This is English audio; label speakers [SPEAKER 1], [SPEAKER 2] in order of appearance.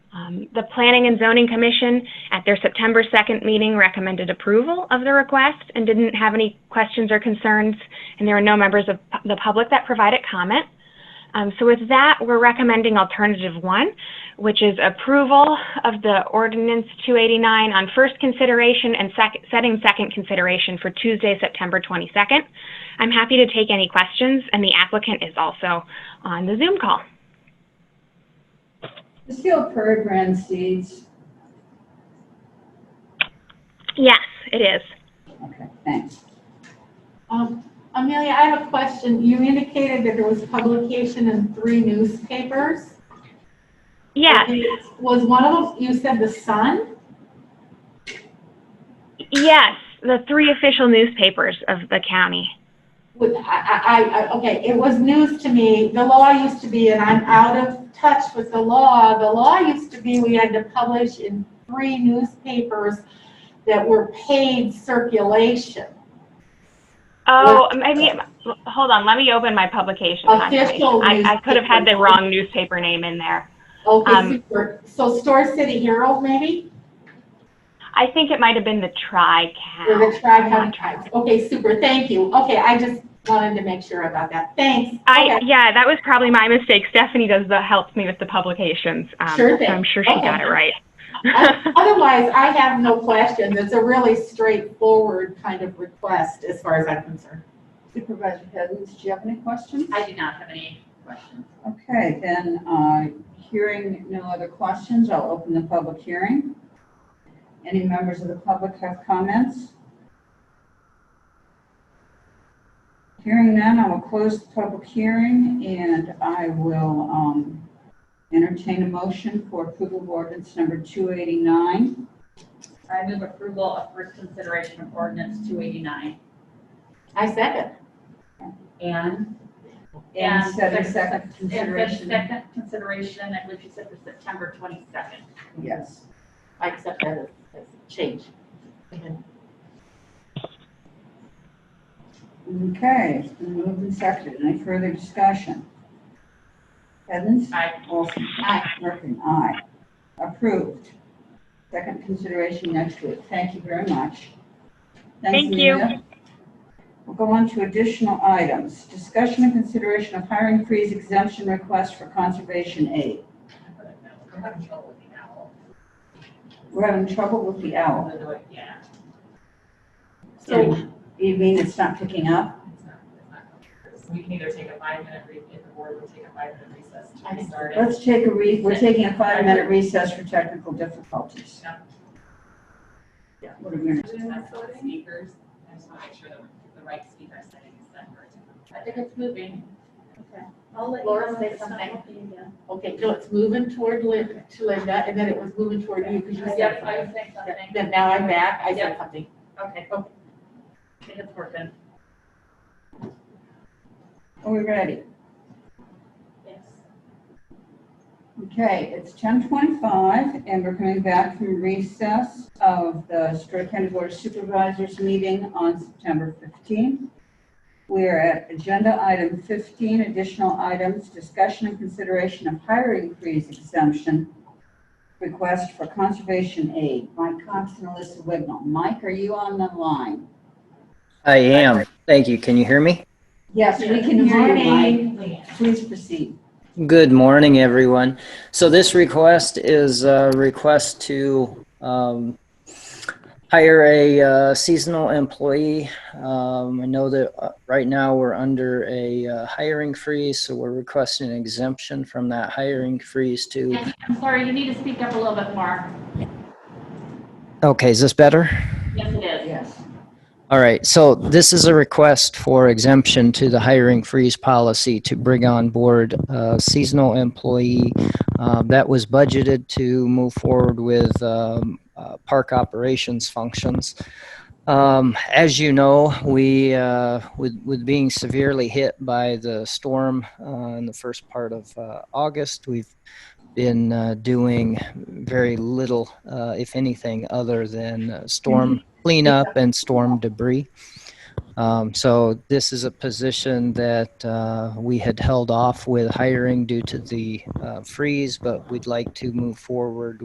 [SPEAKER 1] Um, The Planning and Zoning Commission, at their September 2nd meeting, recommended approval of the request and didn't have any questions or concerns, and there were no members of pu- the public that provided comment. Um, So with that, we're recommending alternative one, which is approval of the ordinance 289 on first consideration and sec- setting second consideration for Tuesday, September 22nd. I'm happy to take any questions, and the applicant is also on the Zoom call.
[SPEAKER 2] The field program seeds.
[SPEAKER 1] Yes, it is.
[SPEAKER 2] Okay, thanks.
[SPEAKER 3] Um, Amelia, I have a question. You indicated that there was publication in three newspapers.
[SPEAKER 1] Yeah,
[SPEAKER 3] Was one of them, you said the Sun?
[SPEAKER 1] yes, the three official newspapers of the county.
[SPEAKER 3] Would, I, I, I, okay, it was news to me. The law used to be, and I'm out of touch with the law. The law used to be we had to publish in three newspapers that were paid circulation.
[SPEAKER 1] Oh, maybe, hold on, let me open my publication.
[SPEAKER 3] Official
[SPEAKER 1] confirmation. I, I could have had the
[SPEAKER 3] newspaper.
[SPEAKER 1] wrong newspaper name in there. Um,
[SPEAKER 3] Okay, super. So Store City Herald, maybe?
[SPEAKER 1] I think it might have been the tri
[SPEAKER 3] Or the
[SPEAKER 1] Not
[SPEAKER 3] tri-county tribes. Okay, super, thank you. Okay, I just wanted to make sure about that. Thanks.
[SPEAKER 1] I,
[SPEAKER 3] Okay.
[SPEAKER 1] yeah, that was probably my mistake. Stephanie does the, helps me with the publications. um,
[SPEAKER 3] Sure
[SPEAKER 1] So
[SPEAKER 3] thing.
[SPEAKER 1] I'm sure she
[SPEAKER 3] Okay.
[SPEAKER 1] got it right.
[SPEAKER 3] O- Otherwise, I have no questions. It's a really straightforward kind of request as far as I'm concerned.
[SPEAKER 2] Supervisor Hiddens, do you have any questions?
[SPEAKER 4] I do not have any questions.
[SPEAKER 2] Okay, then, uh, hearing no other questions, I'll open the public hearing. Any members of the public have comments? Hearing none, I will close the public hearing and I will um, entertain a motion for approval of ordinance number 289.
[SPEAKER 4] I move approval of first consideration of ordinance two eighty-nine.
[SPEAKER 3] I second.
[SPEAKER 4] And?
[SPEAKER 2] And setting
[SPEAKER 4] there's-
[SPEAKER 2] second
[SPEAKER 4] And the
[SPEAKER 2] consideration.
[SPEAKER 4] second consideration, I believe you said was September twenty-second.
[SPEAKER 2] Yes.
[SPEAKER 3] I accept that as as a change.
[SPEAKER 2] Okay, it's been moved and seconded. Any further discussion? Heddens?
[SPEAKER 4] Aye.
[SPEAKER 2] Olson.
[SPEAKER 3] Aye.
[SPEAKER 2] Merkin, aye. Approved. Second consideration next week. Thank you very much. Thanks,
[SPEAKER 1] Thank you.
[SPEAKER 2] Amelia. We'll go on to additional items. Discussion and consideration of hiring freeze exemption request for conservation aid. We're having trouble with the owl.
[SPEAKER 4] Yeah.
[SPEAKER 3] So,
[SPEAKER 2] You mean it's not picking up?
[SPEAKER 5] We can either take a five-minute recess, if the board would take a five-minute recess to restart it.
[SPEAKER 2] Let's take a re, we're taking a five-minute recess for technical difficulties.
[SPEAKER 5] Yeah.
[SPEAKER 2] Yeah, what a minute.
[SPEAKER 5] Just test the Speakers, I just want to make sure that the right speaker setting is set for it.
[SPEAKER 4] I think it's moving.
[SPEAKER 3] Laura say something. okay, no, it's moving toward Lin- to Linda, and then it was moving toward you because you said
[SPEAKER 4] Yep, I was saying
[SPEAKER 3] something.
[SPEAKER 4] something.
[SPEAKER 3] Then now I'm back. I said
[SPEAKER 4] Yep.
[SPEAKER 3] something.
[SPEAKER 4] Okay.
[SPEAKER 3] Okay.
[SPEAKER 4] I think it's working.
[SPEAKER 2] Are we ready?
[SPEAKER 4] Yes.
[SPEAKER 2] Okay, it's ten twenty-five, and we're coming back from recess of the Story County Board of Supervisors meeting on September fifteenth. We are at agenda item fifteen, additional items, discussion and consideration of hiring freeze exemption request for conservation aid. Mike Cox and Alyssa Wignall. Mike, are you on the line?
[SPEAKER 6] I am. Thank you. Can you hear me?
[SPEAKER 2] Yes, we can hear you, Mike. Please proceed.
[SPEAKER 6] Good morning, everyone. So this request is a request to um, hire a uh, seasonal employee. Um, I know that uh, right now we're under a uh, hiring freeze, so we're requesting an exemption from that hiring freeze to.
[SPEAKER 4] And I'm sorry, you need to speak up a little bit more.
[SPEAKER 6] Okay, is this better?
[SPEAKER 4] Yes, it is.
[SPEAKER 2] Yes.
[SPEAKER 6] All right, so this is a request for exemption to the hiring freeze policy to bring on board a seasonal employee uh, that was budgeted to move forward with um, uh, park operations functions. Um, As you know, we, uh, with with being severely hit by the storm uh, in the first part of uh, August, we've been uh, doing very little, uh, if anything, other than uh, storm cleanup and storm debris. Um, so this is a position that uh, we had held off with hiring due to the uh, freeze, but we'd like to move forward